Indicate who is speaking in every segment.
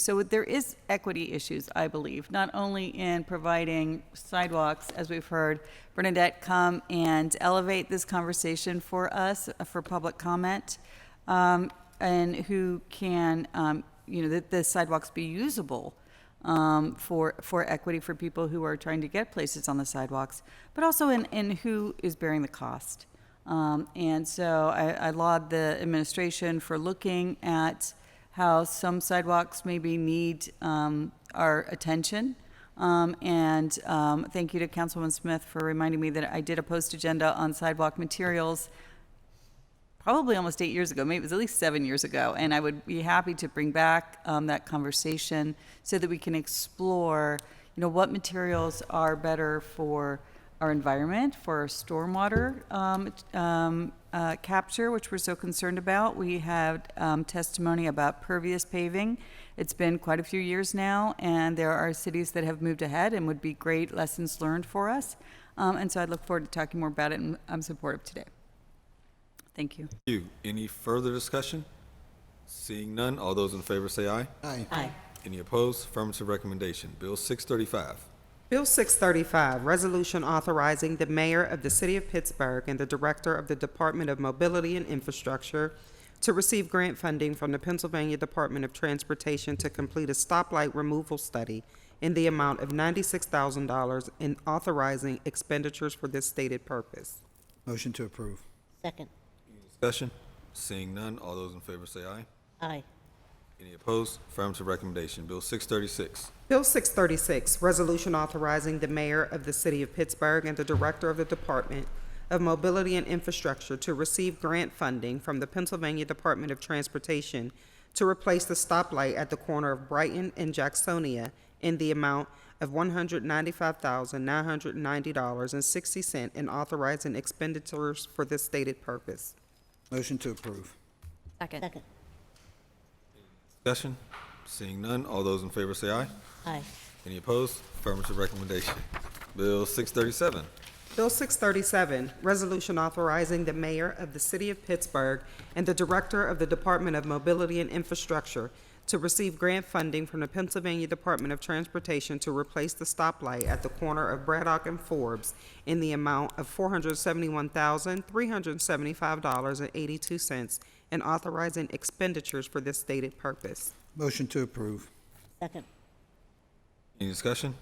Speaker 1: So there is equity issues, I believe, not only in providing sidewalks, as we've heard. Bernadette, come and elevate this conversation for us, uh, for public comment, um, and who can, um, you know, that the sidewalks be usable um, for, for equity for people who are trying to get places on the sidewalks, but also in, in who is bearing the cost. Um, and so I, I laud the administration for looking at how some sidewalks maybe need um, our attention. Um, and um, thank you to Councilwoman Smith for reminding me that I did a post agenda on sidewalk materials probably almost eight years ago, maybe it was at least seven years ago, and I would be happy to bring back um, that conversation so that we can explore, you know, what materials are better for our environment, for our stormwater um, um, uh, capture, which we're so concerned about. We had um, testimony about pervious paving. It's been quite a few years now, and there are cities that have moved ahead and would be great lessons learned for us. Um, and so I look forward to talking more about it, and I'm supportive today. Thank you.
Speaker 2: Thank you. Any further discussion? Seeing none, all those in favor say aye.
Speaker 3: Aye.
Speaker 1: Aye.
Speaker 2: Any opposed? Affirmative recommendation. Bill 635.
Speaker 4: Bill 635, Resolution Authorizing the Mayor of the City of Pittsburgh and the Director of the Department of Mobility and Infrastructure to receive grant funding from the Pennsylvania Department of Transportation to complete a stoplight removal study in the amount of $96,000 and authorizing expenditures for this stated purpose.
Speaker 3: Motion to approve.
Speaker 5: Second.
Speaker 2: Discussion? Seeing none, all those in favor say aye.
Speaker 5: Aye.
Speaker 2: Any opposed? Affirmative recommendation. Bill 636.
Speaker 4: Bill 636, Resolution Authorizing the Mayor of the City of Pittsburgh and the Director of the Department of Mobility and Infrastructure to receive grant funding from the Pennsylvania Department of Transportation to replace the stoplight at the corner of Brighton and Jacksonia in the amount of $195,990.60 and authorizing expenditures for this stated purpose.
Speaker 3: Motion to approve.
Speaker 5: Second.
Speaker 2: Discussion? Seeing none, all those in favor say aye.
Speaker 5: Aye.
Speaker 2: Any opposed? Affirmative recommendation. Bill 637.
Speaker 4: Bill 637, Resolution Authorizing the Mayor of the City of Pittsburgh and the Director of the Department of Mobility and Infrastructure to receive grant funding from the Pennsylvania Department of Transportation to replace the stoplight at the corner of Braddock and Forbes in the amount of $471,375.82 and authorizing expenditures for this stated purpose.
Speaker 3: Motion to approve.
Speaker 5: Second.
Speaker 2: Any discussion?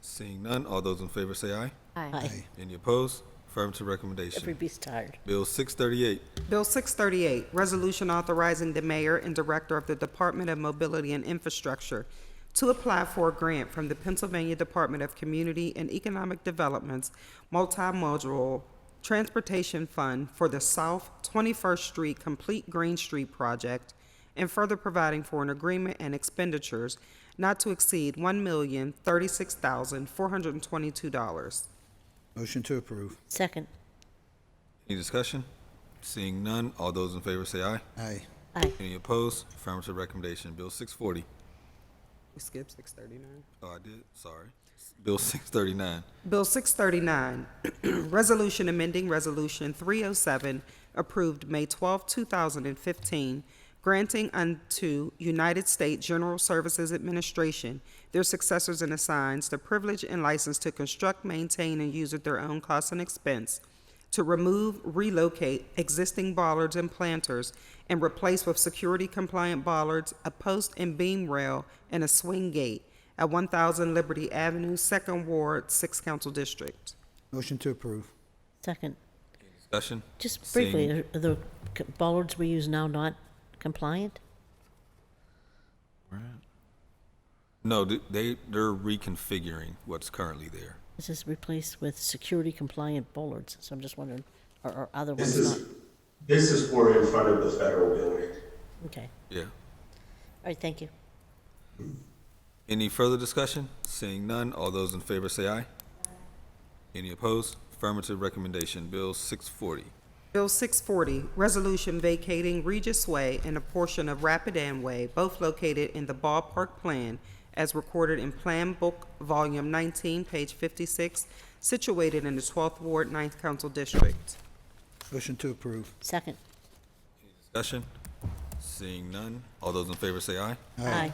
Speaker 2: Seeing none, all those in favor say aye.
Speaker 5: Aye.
Speaker 2: Any opposed? Affirmative recommendation.
Speaker 5: Everybody's tired.
Speaker 2: Bill 638.
Speaker 4: Bill 638, Resolution Authorizing the Mayor and Director of the Department of Mobility and Infrastructure to apply for a grant from the Pennsylvania Department of Community and Economic Development's Multimodal Transportation Fund for the South 21st Street Complete Green Street Project and further providing for an agreement and expenditures not to exceed $1,036,422.
Speaker 3: Motion to approve.
Speaker 5: Second.
Speaker 2: Any discussion? Seeing none, all those in favor say aye.
Speaker 3: Aye.
Speaker 5: Aye.
Speaker 2: Any opposed? Affirmative recommendation. Bill 640.
Speaker 4: We skipped 639.
Speaker 2: Oh, I did, sorry. Bill 639.
Speaker 4: Bill 639, Resolution Amending Resolution 307, approved May 12, 2015, granting unto United States General Services Administration their successors and assigns the privilege and license to construct, maintain, and use at their own cost and expense, to remove, relocate existing bollards and planters, and replace with security-compliant bollards, a post and beam rail, and a swing gate at 1000 Liberty Avenue, Second Ward, 6th Council District.
Speaker 3: Motion to approve.
Speaker 5: Second.
Speaker 2: Discussion?
Speaker 5: Just
Speaker 2: Seeing-
Speaker 5: briefly, are the c- bollards we use now not compliant?
Speaker 2: No, th- they, they're reconfiguring what's currently there.
Speaker 5: This is replaced with security compliant bollards, so I'm just wondering, are, are other
Speaker 6: This
Speaker 5: ones not?
Speaker 6: is, this is for in front of the federal building.
Speaker 5: Okay.
Speaker 2: Yeah.
Speaker 5: All right, thank you.
Speaker 2: Any further discussion? Seeing none, all those in favor say aye. Any opposed? Affirmative recommendation. Bill 640.
Speaker 4: Bill 640, Resolution Vacating Regis Way and a portion of Rapidan Way, both located in the ballpark plan as recorded in Plan Book Volume 19, page 56, situated in the 12th Ward, 9th Council District.
Speaker 3: Motion to approve.
Speaker 5: Second.
Speaker 2: Discussion? Seeing none, all those in favor say aye.
Speaker 5: Aye.